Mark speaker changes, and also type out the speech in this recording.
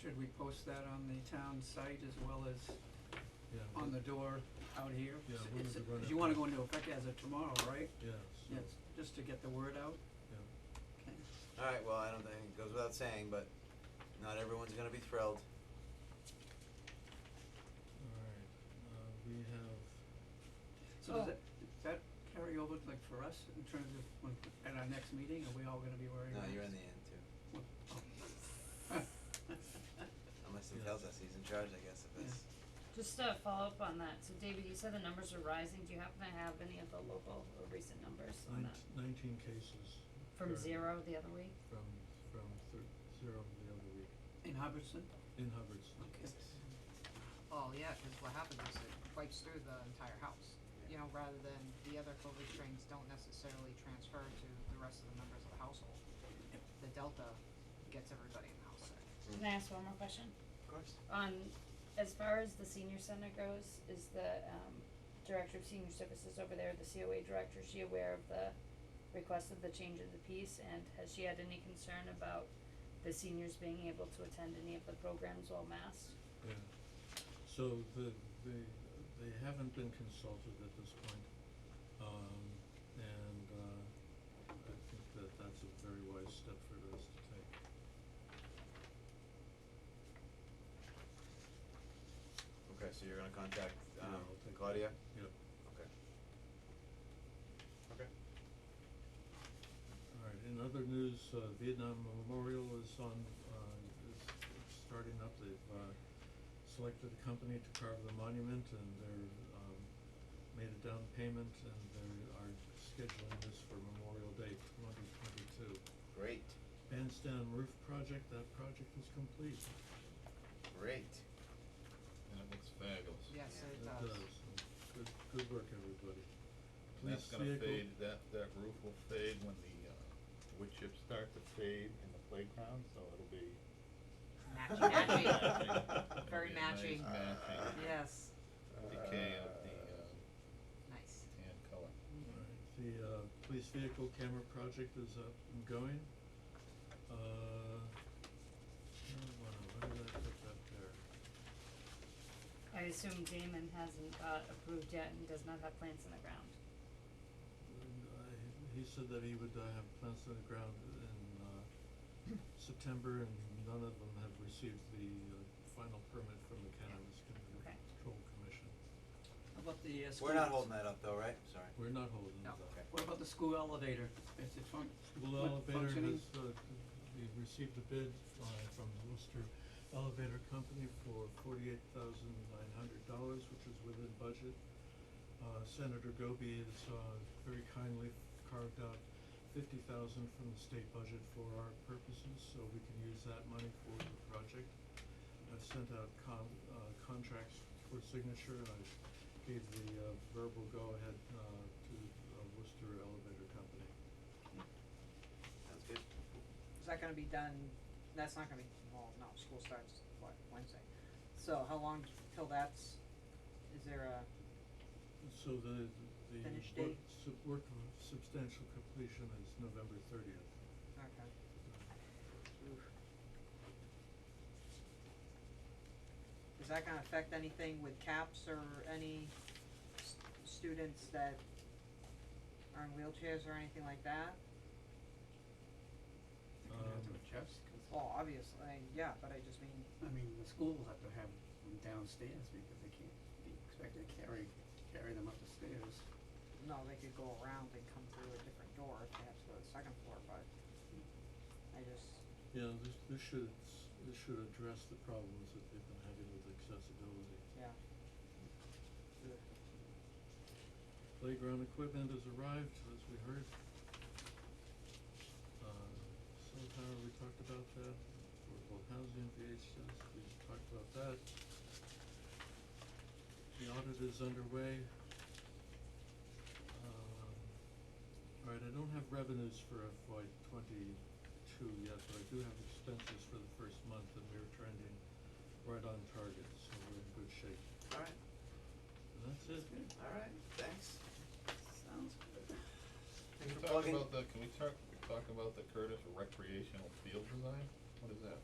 Speaker 1: should we post that on the town site as well as
Speaker 2: Yeah,
Speaker 1: on the door out here?
Speaker 2: Yeah,
Speaker 1: S-
Speaker 2: we
Speaker 1: it's-
Speaker 2: need to run
Speaker 1: Cause
Speaker 2: it
Speaker 1: you wanna
Speaker 2: by-
Speaker 1: go into effect as of tomorrow, right?
Speaker 2: yeah, so,
Speaker 1: Yes, just to get the word out?
Speaker 2: yeah.
Speaker 1: Okay.
Speaker 3: Alright, well, I don't think, it goes without saying, but not everyone's gonna be thrilled.
Speaker 2: Alright, uh, we have,
Speaker 1: So does
Speaker 4: Oh.
Speaker 1: that, does that carry over like for us in terms of when, at our next meeting, are we all gonna be wearing
Speaker 3: No,
Speaker 1: masks?
Speaker 3: you're in the end too.
Speaker 1: Oh.
Speaker 3: Unless he
Speaker 2: Yeah.
Speaker 3: tells us he's in charge, I guess,
Speaker 1: Yeah.
Speaker 3: of this.
Speaker 4: Just to follow up on that, so David, you said the numbers are rising, do you happen to have any of the local or recent numbers on that?
Speaker 2: nine- nineteen cases
Speaker 4: From
Speaker 2: Sure.
Speaker 4: zero the other week?
Speaker 2: from, from thir- zero the other week,
Speaker 1: In Hubbardston?
Speaker 2: in Hubbardston.
Speaker 1: Okay.
Speaker 5: Well, Oh, yeah, cause what happens is it wipes through the entire house, you know, rather than the other COVID strains don't necessarily transfer to the rest of the members of the household. The delta gets everybody in the house sick.
Speaker 3: Mm.
Speaker 4: Can I ask one more question?
Speaker 3: Of course.
Speaker 4: On, Um, as far as the senior center goes, is the, um, director of senior services over there, the COA director, is she aware of the request of the change of the piece, and has she had any concern about the seniors being able to attend any of the programs while masked?
Speaker 2: Yeah, so the, they, they haven't been consulted at this point, um, and, uh, I think that that's a very wise step for us to take.
Speaker 3: Okay, so you're gonna contact,
Speaker 2: Yeah,
Speaker 3: um,
Speaker 2: I'll take-
Speaker 3: Claudia?
Speaker 2: Yep,
Speaker 3: Okay. Okay.
Speaker 2: alright, in other news, uh, Vietnam Memorial is on, uh, is is starting up, they've, uh, selected a company to carve the monument, and they're, um, made a down payment, and they are scheduling this for Memorial Day twenty twenty-two.
Speaker 3: Great,
Speaker 2: bandstand roof project, that project is complete.
Speaker 3: great.
Speaker 6: And it looks fabulous.
Speaker 5: Yes, it
Speaker 2: That
Speaker 5: does.
Speaker 2: and Good, good work, everybody.
Speaker 6: And that's
Speaker 2: Police
Speaker 6: gonna
Speaker 2: vehicle-
Speaker 6: fade, that, that roof will fade when the, uh, wood chips start to fade in the playground, so it'll be.
Speaker 5: Matchy,
Speaker 6: it'll be
Speaker 5: matchy.
Speaker 6: It'll
Speaker 5: Very
Speaker 6: be a nice
Speaker 5: matching.
Speaker 6: matching
Speaker 5: Yes,
Speaker 6: uh, Decay of the, uh,
Speaker 5: nice.
Speaker 6: tan color.
Speaker 2: Alright, the, uh, police vehicle camera project is up and going. Uh, marijuana, why did I put that there?
Speaker 4: I assume Damon hasn't got approved yet and does not have plants in the ground.
Speaker 2: And I, he said that he would, uh, have plants in the ground in, uh, September, and none of them have received the, uh, final permit from the Cannabis
Speaker 4: Okay.
Speaker 2: Control Commission.
Speaker 1: How about the uh, school?
Speaker 3: We're not holding that up though, right? Sorry.
Speaker 2: We're not holding it
Speaker 5: No.
Speaker 2: up.
Speaker 3: Okay.
Speaker 1: What about the school elevator? Is it fun-
Speaker 2: School
Speaker 1: fun-
Speaker 2: elevator
Speaker 1: functioning?
Speaker 2: has, uh, we received a bid uh from the Worcester Elevator Company for forty-eight thousand nine hundred dollars, which is within budget. Uh Senator Goby has uh very kindly carved out fifty thousand from the state budget for our purposes, so we can use that money for the project. I've sent out con- uh contracts for signature, and I gave the uh verbal go-ahead uh to uh Worcester Elevator Company.
Speaker 3: Sounds good.
Speaker 5: Is that gonna be done, that's not gonna be, well, no, school starts, what, Wednesday? So how long till that's, is there a,
Speaker 2: So the, the
Speaker 5: Finish
Speaker 2: work,
Speaker 5: date?
Speaker 2: sub, work of substantial completion is November thirtieth.
Speaker 5: okay. Oof. Is that gonna affect anything with caps or any s- students that are in wheelchairs or anything like that?
Speaker 1: They're gonna have to
Speaker 2: Um,
Speaker 1: adjust, 'cause-
Speaker 5: Well, obviously, yeah, but I just mean,
Speaker 1: I mean, the school will have to have them downstairs because they can't be expected to carry, carry them up the stairs.
Speaker 5: no, they could go around and come through a different door if they have to go to the second floor, but I just,
Speaker 2: Yeah, this, this should, s- this should address the problems that they've been having with accessibility.
Speaker 5: yeah. Ugh.
Speaker 2: Playground equipment has arrived, as we heard. Uh, cell tower, we talked about that, affordable housing, VHS, we talked about that. The audit is underway. Um, alright, I don't have revenues for FY twenty-two yet, but I do have expenses for the first month, and we're trending right on target, so we're in good shape.
Speaker 3: Alright,
Speaker 2: And that's it.
Speaker 3: alright, thanks.
Speaker 1: Sounds good.
Speaker 6: Can
Speaker 3: Thanks for
Speaker 6: we talk
Speaker 3: plugging.
Speaker 6: about the, can we talk, talk about the Curtis recreational field design? What is that?